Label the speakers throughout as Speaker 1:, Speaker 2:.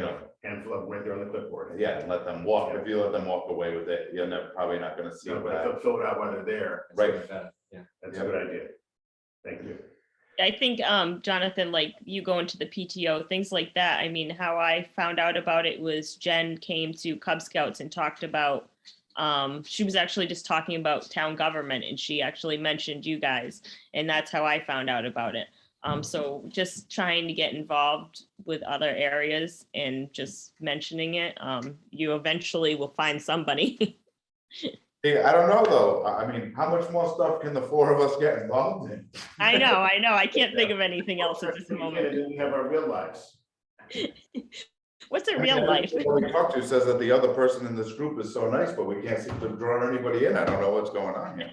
Speaker 1: a handful of where they're on the clipboard.
Speaker 2: yeah, and let them walk, if you let them walk away with it, you're never, probably not gonna see
Speaker 1: So,
Speaker 2: what
Speaker 1: but
Speaker 2: I,
Speaker 1: fill- fill it out while they're there.
Speaker 2: right,
Speaker 3: Yeah.
Speaker 1: That's a good idea. Thank you.
Speaker 4: I think, um, Jonathan, like you go into the PTO, things like that. I mean, how I found out about it was Jen came to Cub Scouts and talked about, um, she was actually just talking about town government and she actually mentioned you guys. And that's how I found out about it. Um, so just trying to get involved with other areas and just mentioning it, um, you eventually will find somebody.
Speaker 2: Hey, I don't know though, I, I mean, how much more stuff can the four of us get involved in?
Speaker 4: I know, I know. I can't think of anything else at this moment.
Speaker 1: And then we have our real lives.
Speaker 4: What's in real life?
Speaker 2: Everyone we talk to says that the other person in this group is so nice, but we can't seem to draw anybody in, I don't know what's going on here.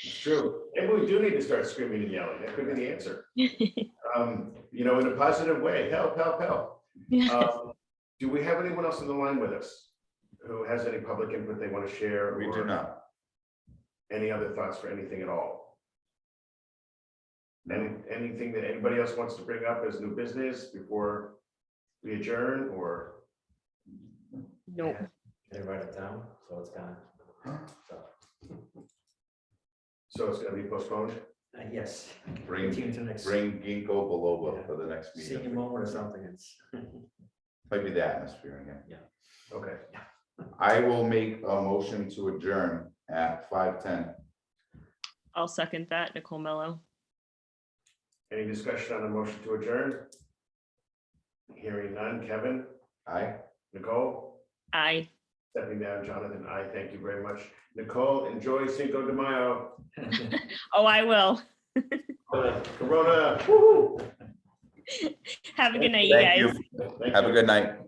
Speaker 1: It's true. Maybe we do need to start screaming and yelling. That could be the answer. Um, you know, in a positive way, help, help, help. Um, Do we have anyone else on the line with us who has any public input they want to share?
Speaker 2: We do
Speaker 1: or
Speaker 2: not,
Speaker 1: Any other thoughts for anything at all? Any, anything that anybody else wants to bring up as new business before we adjourn or?
Speaker 4: Nope.
Speaker 3: They write it down, so it's gone. So,
Speaker 1: So it's gonna be postponed?
Speaker 3: uh, yes.
Speaker 2: Bring-
Speaker 3: Tune to next,
Speaker 2: bring Ginkgo biloba for the next
Speaker 3: see you
Speaker 2: meeting,
Speaker 3: moment or something, it's.
Speaker 2: might be the atmosphere again.
Speaker 1: Okay,
Speaker 2: I will make a motion to adjourn at five ten.
Speaker 4: I'll second that, Nicole Mello.
Speaker 1: any discussion on the motion to adjourn? Hearing none, Kevin,
Speaker 2: Aye?
Speaker 1: Nicole,
Speaker 4: Aye.
Speaker 1: stepping down, Jonathan, I thank you very much. Nicole, enjoy Cinco de Mayo.
Speaker 4: Oh, I will.
Speaker 1: Corona, woo
Speaker 4: Have a good night, you
Speaker 2: Thank
Speaker 4: guys.
Speaker 2: Have a good night.